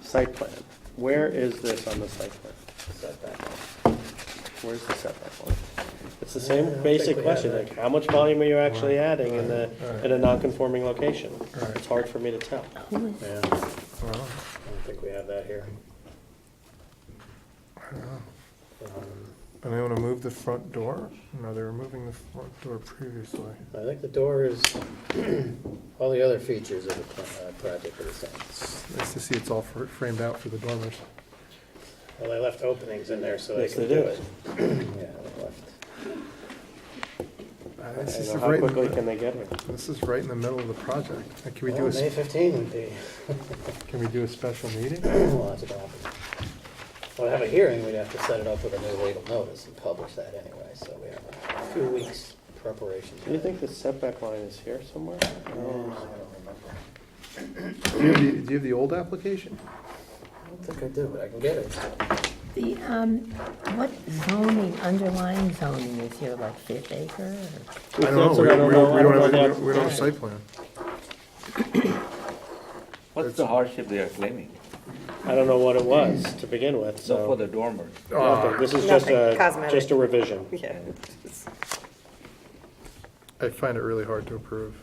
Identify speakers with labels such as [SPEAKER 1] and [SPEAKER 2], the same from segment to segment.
[SPEAKER 1] site plan. Where is this on the site plan?
[SPEAKER 2] setback.
[SPEAKER 1] Where's the setback line? It's the
[SPEAKER 3] Yeah, I
[SPEAKER 1] same
[SPEAKER 3] don't think
[SPEAKER 1] basic
[SPEAKER 3] we
[SPEAKER 1] question,
[SPEAKER 3] have
[SPEAKER 1] like, how much volume are you actually adding in the,
[SPEAKER 3] Right.
[SPEAKER 1] in a non-conforming location?
[SPEAKER 3] Right.
[SPEAKER 1] It's hard for me to tell.
[SPEAKER 3] Yeah, I don't
[SPEAKER 2] Well,
[SPEAKER 3] think we have that here. Um,
[SPEAKER 2] And they want to move the front door? No, they were moving the front door previously.
[SPEAKER 3] I think the door is, all the other features of the pla- uh, project are the same.
[SPEAKER 2] It's Nice to see it's all fr- framed out for the dormers.
[SPEAKER 3] Well, they left openings in there so they
[SPEAKER 1] Yes,
[SPEAKER 3] could
[SPEAKER 1] they
[SPEAKER 3] do
[SPEAKER 1] do.
[SPEAKER 3] it. Yeah, they left.
[SPEAKER 2] Uh,
[SPEAKER 1] I
[SPEAKER 2] This
[SPEAKER 1] don't
[SPEAKER 2] is
[SPEAKER 1] know,
[SPEAKER 2] right
[SPEAKER 1] how
[SPEAKER 2] in
[SPEAKER 1] quickly can
[SPEAKER 2] the,
[SPEAKER 1] they get here?
[SPEAKER 2] this is right in the middle of the project. Uh, Can we do a,
[SPEAKER 3] Well, May
[SPEAKER 2] s-
[SPEAKER 3] 15 would be,
[SPEAKER 2] can we do a special meeting?
[SPEAKER 3] well, that's about, well, to have a hearing, we'd have to set it up with a new legal notice and publish that anyway, so we have a few weeks preparation.
[SPEAKER 1] Do you think the setback line is here somewhere?
[SPEAKER 3] Yeah, I don't remember.
[SPEAKER 2] Do you have the, do you have the old application?
[SPEAKER 3] I don't think I do, but I can get it.
[SPEAKER 4] The, um, what zoning, underlying zoning is here, like fifth acre? or-
[SPEAKER 2] I don't know.
[SPEAKER 1] That's
[SPEAKER 2] We
[SPEAKER 1] what I
[SPEAKER 2] don't, we don't- we
[SPEAKER 1] I
[SPEAKER 2] don't have,
[SPEAKER 1] know
[SPEAKER 2] a- we
[SPEAKER 1] that-
[SPEAKER 2] don't- we don't have a site plan.
[SPEAKER 5] What's the hardship they are claiming?
[SPEAKER 1] I don't know what it was to begin with,
[SPEAKER 5] So for
[SPEAKER 1] so,
[SPEAKER 5] the dormers,
[SPEAKER 2] Ah.
[SPEAKER 1] nothing, this is just
[SPEAKER 6] Nothing,
[SPEAKER 1] a,
[SPEAKER 6] cosmetic.
[SPEAKER 1] just a revision.
[SPEAKER 6] Yeah.
[SPEAKER 2] I find it really hard to approve.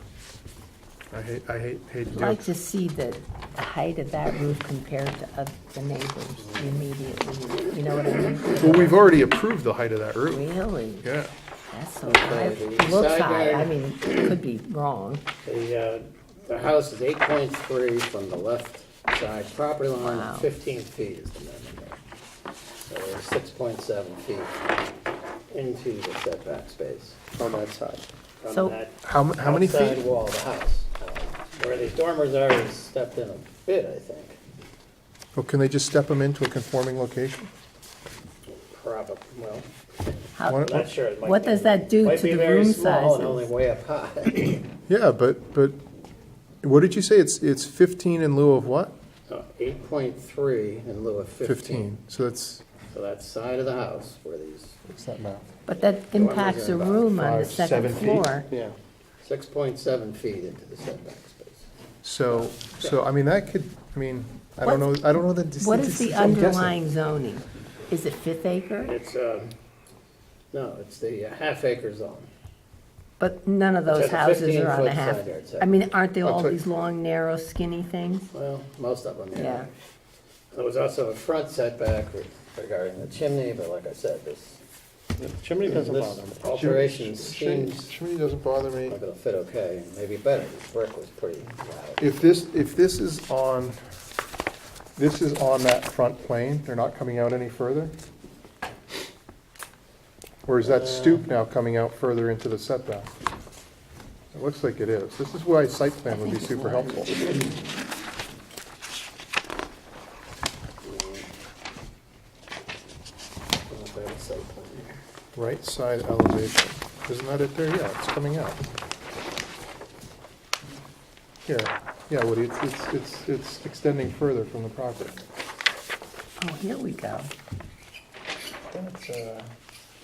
[SPEAKER 2] I hate, I hate, hate to
[SPEAKER 4] I'd
[SPEAKER 2] do
[SPEAKER 4] like
[SPEAKER 2] it.
[SPEAKER 4] to see the, the height of that roof compared to of the neighbors immediately, you know what I mean?
[SPEAKER 2] Well, we've already approved the height of that roof.
[SPEAKER 4] Really?
[SPEAKER 2] Yeah.
[SPEAKER 4] That's so high.
[SPEAKER 3] Okay, the
[SPEAKER 4] Looks
[SPEAKER 3] side
[SPEAKER 4] high, I
[SPEAKER 3] yard-
[SPEAKER 4] mean, it could be wrong.
[SPEAKER 3] The, uh, the house is eight point three from the left side property line,
[SPEAKER 4] Wow.
[SPEAKER 3] fifteen feet is the minimum. So we're six point seven feet into the setback space
[SPEAKER 1] on that side.
[SPEAKER 3] from
[SPEAKER 4] So-
[SPEAKER 3] that
[SPEAKER 2] How, mu- how many
[SPEAKER 3] outside
[SPEAKER 2] feet?
[SPEAKER 3] wall of the house. Uh, Where these dormers are is stepped in a bit, I think,
[SPEAKER 2] Well, can they just step them into a conforming location?
[SPEAKER 3] probably, well,
[SPEAKER 2] Why
[SPEAKER 4] How,
[SPEAKER 2] don't-
[SPEAKER 3] not sure. It might
[SPEAKER 4] What does
[SPEAKER 3] be-
[SPEAKER 4] that do
[SPEAKER 3] might
[SPEAKER 4] to
[SPEAKER 3] be
[SPEAKER 4] the
[SPEAKER 3] very
[SPEAKER 4] room
[SPEAKER 3] small and
[SPEAKER 4] sizes?
[SPEAKER 3] Only way up high,
[SPEAKER 2] Yeah, but, but, what did you say? It's, it's fifteen in lieu of what?
[SPEAKER 3] eight point three in lieu of fifteen.
[SPEAKER 2] Fifteen, so that's.
[SPEAKER 3] So that side of the house where these
[SPEAKER 2] What's that math?
[SPEAKER 4] but that impacts the
[SPEAKER 3] about
[SPEAKER 4] room on the
[SPEAKER 2] five, seven
[SPEAKER 4] second
[SPEAKER 2] feet?
[SPEAKER 4] floor.
[SPEAKER 1] Yeah,
[SPEAKER 3] Six point seven feet into the setback space.
[SPEAKER 2] So, so, I mean, that could, I mean, I don't know,
[SPEAKER 4] What's-
[SPEAKER 2] I don't know the.
[SPEAKER 4] What is the
[SPEAKER 2] I'm guessing.
[SPEAKER 4] underlying zoning? Is it fifth acre?
[SPEAKER 3] It's, um, no, it's the uh, half acre zone.
[SPEAKER 4] But none of those
[SPEAKER 3] It's a
[SPEAKER 4] houses are
[SPEAKER 3] 15
[SPEAKER 4] on a
[SPEAKER 3] foot
[SPEAKER 4] half.
[SPEAKER 3] side yard
[SPEAKER 4] I mean, aren't they
[SPEAKER 2] I'll
[SPEAKER 4] all
[SPEAKER 2] tell-
[SPEAKER 4] these long, narrow, skinny things?
[SPEAKER 3] Well, most of them, yeah.
[SPEAKER 4] Yeah.
[SPEAKER 3] There was also a front setback re- regarding the chimney, but like I said, this,
[SPEAKER 1] The chimney doesn't bother me.
[SPEAKER 3] this alteration seems
[SPEAKER 2] Chimney doesn't bother me.
[SPEAKER 3] not gonna fit okay, and maybe better. The brick was pretty loud.
[SPEAKER 2] If this, if this is on, this is on that front plane, they're not coming out any further? Or is that stoop now coming out further into the setback? It looks like it is. This is why site plan would be super helpful. Right side elevation. Isn't that it there? Yeah, it's coming out. Here, yeah, Woody, it's, it's, it's, it's extending further from the property.
[SPEAKER 4] Oh, here we go.
[SPEAKER 1] uh,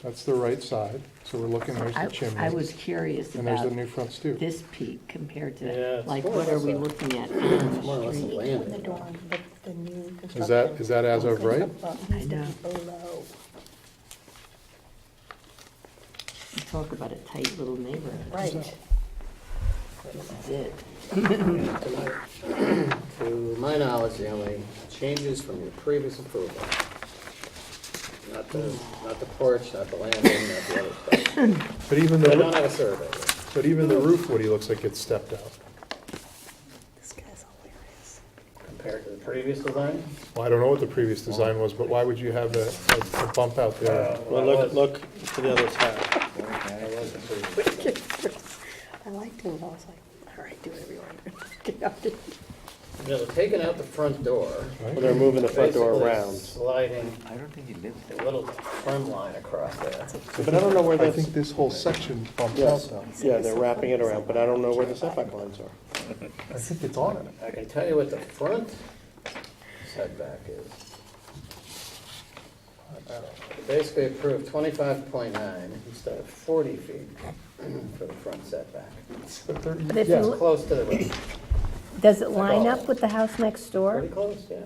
[SPEAKER 2] That's the right side, so we're looking, there's
[SPEAKER 4] I,
[SPEAKER 2] the chimney.
[SPEAKER 4] I was curious
[SPEAKER 2] And there's the
[SPEAKER 4] about
[SPEAKER 2] new front stoop.
[SPEAKER 4] this peak compared
[SPEAKER 3] Yeah,
[SPEAKER 4] to,
[SPEAKER 3] it's
[SPEAKER 4] like,
[SPEAKER 3] more or
[SPEAKER 4] what are
[SPEAKER 3] less
[SPEAKER 4] we
[SPEAKER 3] a-
[SPEAKER 4] looking at on
[SPEAKER 3] More or
[SPEAKER 4] the
[SPEAKER 3] less a
[SPEAKER 4] street?
[SPEAKER 3] landing.
[SPEAKER 7] The dorm, but the new construction.
[SPEAKER 2] Is that, is that as of right?
[SPEAKER 7] Needs to be below.
[SPEAKER 4] You Talk about a tight little neighborhood.
[SPEAKER 7] Right.
[SPEAKER 4] This is it.
[SPEAKER 3] To my knowledge, the only changes from your previous approval. Not the, not the porch, not the landing, not the other stuff.
[SPEAKER 2] But even
[SPEAKER 3] But I don't
[SPEAKER 2] the,
[SPEAKER 3] have a survey.
[SPEAKER 2] but even the roof, Woody, looks like it's stepped out.
[SPEAKER 7] This guy's hilarious.
[SPEAKER 3] Compared to the previous design?
[SPEAKER 2] Well, I don't know what the previous design was, but why would you have a, a- a bump out there?
[SPEAKER 1] Well, look, look to the other side.
[SPEAKER 7] I liked him, I was like, all right, do whatever you want. Get out of here.
[SPEAKER 3] You know, they're taking out the front door.
[SPEAKER 1] Well, They're moving the front door
[SPEAKER 3] basically
[SPEAKER 1] around.
[SPEAKER 3] Sliding
[SPEAKER 5] I don't think he lives there.
[SPEAKER 3] a little trim line across there.
[SPEAKER 1] But I don't know where
[SPEAKER 2] I
[SPEAKER 1] that's,
[SPEAKER 2] think this whole section bumps out
[SPEAKER 1] yes,
[SPEAKER 2] though.
[SPEAKER 1] yeah, they're wrapping it around, but I don't know where the setback lines are.
[SPEAKER 2] I think it's on it.
[SPEAKER 3] I can tell you what the front setback is. Basically approved twenty-five point nine instead of forty feet for the front setback.
[SPEAKER 2] But there-
[SPEAKER 4] But if
[SPEAKER 2] yeah.
[SPEAKER 4] you, look-
[SPEAKER 3] Close to the road,
[SPEAKER 4] does it line up with the house next door?
[SPEAKER 3] pretty close, yeah.